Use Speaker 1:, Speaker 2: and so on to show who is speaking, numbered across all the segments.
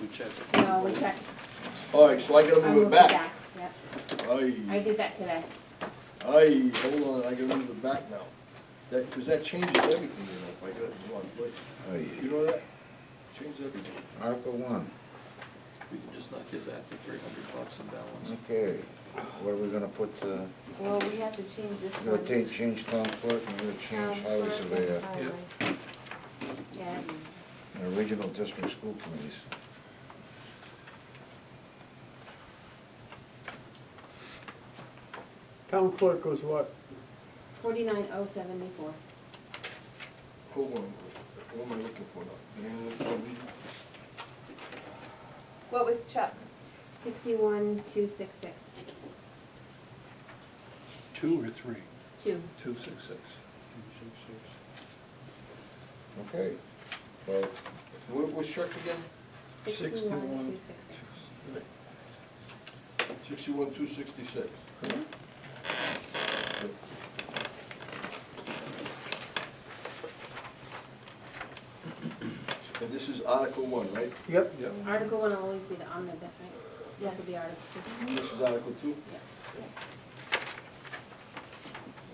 Speaker 1: we checked.
Speaker 2: No, we checked.
Speaker 1: All right, so I gotta
Speaker 2: I
Speaker 1: move it
Speaker 2: moved
Speaker 1: back.
Speaker 2: Yep, I
Speaker 1: Aye,
Speaker 2: did that today.
Speaker 1: aye, hold on, I gotta move it back now. That, cause that changes everything, you know, if I get it in the wrong place.
Speaker 3: Oh,
Speaker 1: You
Speaker 3: yeah.
Speaker 1: know that? Changes everything.
Speaker 3: Article one,
Speaker 4: We can just not give that to three hundred bucks in balance.
Speaker 3: okay, where are we gonna put, uh,
Speaker 5: Well, we have to change this
Speaker 3: we're
Speaker 5: one.
Speaker 3: gonna take, change town clerk, and we're gonna change
Speaker 5: Town
Speaker 3: highway
Speaker 5: clerk and
Speaker 3: surveyor,
Speaker 5: highway.
Speaker 2: Yeah,
Speaker 3: and regional district school committees.
Speaker 6: Town clerk was what?
Speaker 2: forty-nine oh seventy-four.
Speaker 1: Hold on, what am I looking for now? The name of the town meeting?
Speaker 5: What was Chuck?
Speaker 2: Sixty-one, two, six, six,
Speaker 7: Two or three?
Speaker 2: two.
Speaker 1: Two six six.
Speaker 3: Okay, well,
Speaker 1: What was Chuck again?
Speaker 2: Sixty-one, two, six, six.
Speaker 1: Sixty-one, two sixty-six. And this is Article one, right?
Speaker 6: Yep.
Speaker 2: Article one will always be the omnibus, right? This will be
Speaker 5: Yes.
Speaker 2: article two.
Speaker 1: And This is Article two?
Speaker 2: Yeah.
Speaker 1: All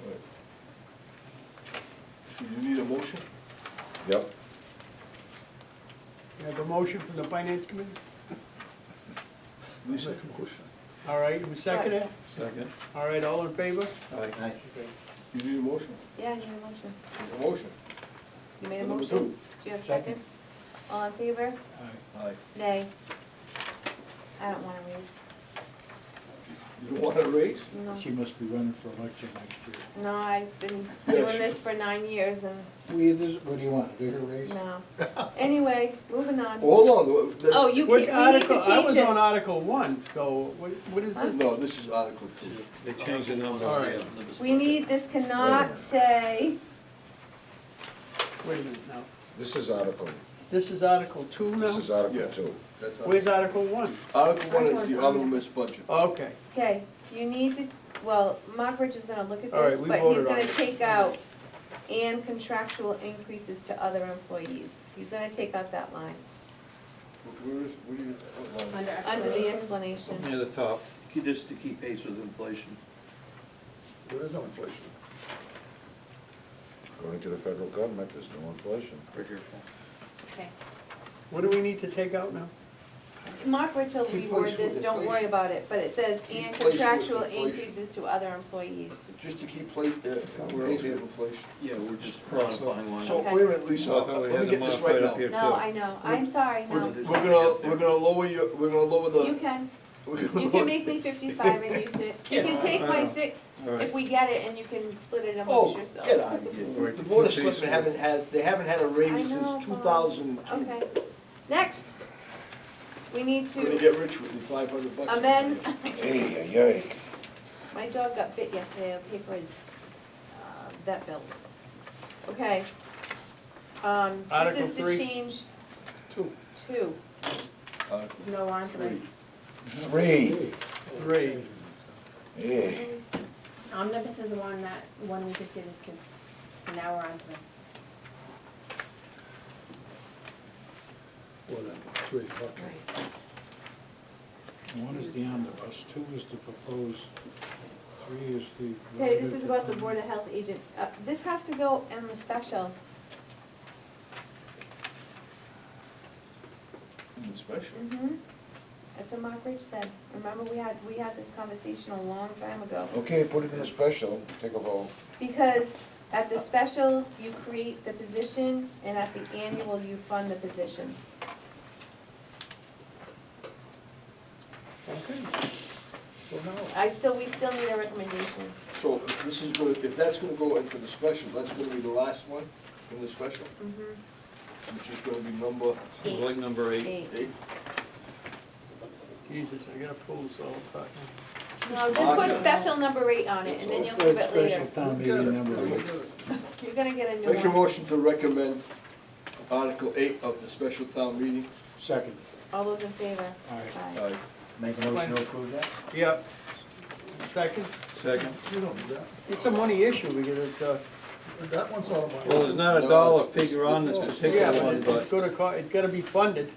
Speaker 1: right. So you need a motion?
Speaker 3: yep,
Speaker 6: You have a motion from the finance committee?
Speaker 1: Lisa?
Speaker 6: All right, who seconded it?
Speaker 4: Second.
Speaker 6: All right, all in favor?
Speaker 4: Aye.
Speaker 1: You need a motion?
Speaker 5: Yeah, I need a motion.
Speaker 1: A motion?
Speaker 5: You made a
Speaker 1: Number
Speaker 5: motion?
Speaker 1: two.
Speaker 5: Do you have a second? All in favor?
Speaker 1: Aye.
Speaker 5: Nay. I don't want to raise.
Speaker 1: You don't want to raise?
Speaker 5: No.
Speaker 7: She must be running for election next year.
Speaker 5: No, I've been
Speaker 1: Yeah,
Speaker 5: doing
Speaker 1: she-
Speaker 5: this for nine years and,
Speaker 7: We, what do you want, do her raise?
Speaker 5: no. Anyway, moving on.
Speaker 1: Hold on. the-
Speaker 5: Oh, you, can- we
Speaker 6: What
Speaker 5: need
Speaker 6: article,
Speaker 5: to
Speaker 6: I
Speaker 5: change
Speaker 6: was on
Speaker 5: it.
Speaker 6: Article one, so what, what is this?
Speaker 1: No, this is Article two.
Speaker 4: They changed the numbers.
Speaker 6: All right.
Speaker 5: We need, this cannot say,
Speaker 6: Wait a minute now.
Speaker 3: this is article,
Speaker 6: This is Article two
Speaker 3: this is
Speaker 6: now?
Speaker 3: article
Speaker 1: Yeah.
Speaker 3: two.
Speaker 1: That's Article-
Speaker 6: Where's Article one?
Speaker 1: Article one is the omnibus budget.
Speaker 6: Okay,
Speaker 5: okay, you need to, well, Mockridge is gonna look at
Speaker 6: All right,
Speaker 5: this,
Speaker 6: we
Speaker 5: but he's
Speaker 6: voted on
Speaker 5: gonna
Speaker 6: it.
Speaker 5: take out and contractual increases to other employees. He's gonna take out that line,
Speaker 1: Where is, where do you? what line?
Speaker 2: Under.
Speaker 5: under the
Speaker 2: explanation.
Speaker 5: explanation.
Speaker 4: Near the top. Just to keep pace with inflation.
Speaker 3: There is no inflation. According to the federal government, there's no inflation.
Speaker 4: Right here.
Speaker 2: Okay.
Speaker 6: what do we need to take out now?
Speaker 5: Mark Richard,
Speaker 1: Keep
Speaker 5: reword
Speaker 1: pace with
Speaker 5: this, don't worry
Speaker 1: inflation.
Speaker 5: about it, but it says,
Speaker 1: Keep
Speaker 5: and
Speaker 1: pace with
Speaker 5: contractual
Speaker 1: inflation.
Speaker 5: increases to other employees.
Speaker 1: Just to keep plate, uh,
Speaker 4: We're
Speaker 1: pace
Speaker 4: okay.
Speaker 1: with inflation.
Speaker 4: Yeah, we're just modifying one.
Speaker 1: So,
Speaker 5: Okay.
Speaker 1: wait a minute, Lisa,
Speaker 4: I thought we
Speaker 1: let
Speaker 4: had
Speaker 1: me get
Speaker 4: them
Speaker 1: this
Speaker 4: modified
Speaker 1: right
Speaker 4: up
Speaker 1: now.
Speaker 4: here.
Speaker 5: No, I know, I'm sorry,
Speaker 1: We're,
Speaker 5: no.
Speaker 1: we're gonna, we're gonna lower your, we're gonna lower the.
Speaker 5: You can,
Speaker 1: we're gonna
Speaker 5: you
Speaker 1: lower-
Speaker 5: can make me fifty-five and use it. You can take my six if we get it and you can split it
Speaker 1: Oh,
Speaker 5: amongst
Speaker 1: get
Speaker 5: yourselves.
Speaker 1: out of here.
Speaker 4: Right.
Speaker 1: The board of selectmen haven't had, they haven't had a raise
Speaker 5: I know,
Speaker 1: since two
Speaker 5: Bob.
Speaker 1: thousand.
Speaker 5: Okay, next, we need
Speaker 1: Gonna
Speaker 5: to
Speaker 1: get rich with the five hundred bucks.
Speaker 5: amend,
Speaker 3: Hey, yay.
Speaker 5: my dog got bit yesterday, the paper is, uh, vet bills. Okay. Um, this
Speaker 6: Article
Speaker 5: is to
Speaker 6: three.
Speaker 5: change
Speaker 1: Two.
Speaker 5: two.
Speaker 7: Uh,
Speaker 1: Article
Speaker 2: No on to the
Speaker 1: three.
Speaker 3: Three,
Speaker 6: Three.
Speaker 3: yeah.
Speaker 2: omnibus is the one that, one we just did is two. So now we're on to the,
Speaker 7: Whatever, three, okay. One is the omnibus, two is the proposed, three is the.
Speaker 5: Okay, this is about the Board of Health agent. Uh, This has to go in the special.
Speaker 1: In the special.
Speaker 2: Mm-hmm.
Speaker 5: That's what Mark Rich said. Remember, we had, we had this conversation a long time ago.
Speaker 7: Oh.
Speaker 3: Okay, put it in a special, take a vote.
Speaker 5: Because at the special, you create the position, and at the annual, you fund the position.
Speaker 6: Okay. So now,
Speaker 5: I still, we still need a recommendation.
Speaker 1: So if this is gonna, if that's gonna go into the special, that's gonna be the last one in the special,
Speaker 2: Mm-hmm.
Speaker 1: which is gonna be number
Speaker 4: It's like number eight.
Speaker 5: Eight.
Speaker 1: eight.
Speaker 6: Jesus, I gotta pull this all apart.
Speaker 5: No, just put special number eight on it, and then you'll move it later.
Speaker 7: Special town meeting number eight.
Speaker 5: You're gonna get a new
Speaker 1: Make a
Speaker 5: one.
Speaker 1: motion to recommend Article eight of the special town meeting.
Speaker 7: Second.
Speaker 5: All those in favor?
Speaker 7: All right.
Speaker 5: Aye.
Speaker 1: Aye.
Speaker 8: Make a motion to approve that?
Speaker 6: Yep. Second,
Speaker 4: Second.
Speaker 7: You don't do that.
Speaker 6: it's a money issue because it's uh, a,
Speaker 7: That one's all about.
Speaker 4: Well, there's not a dollar figure on this particular
Speaker 6: yeah, but
Speaker 4: one,
Speaker 6: it's
Speaker 4: but
Speaker 6: gonna, co- it's gotta be funded.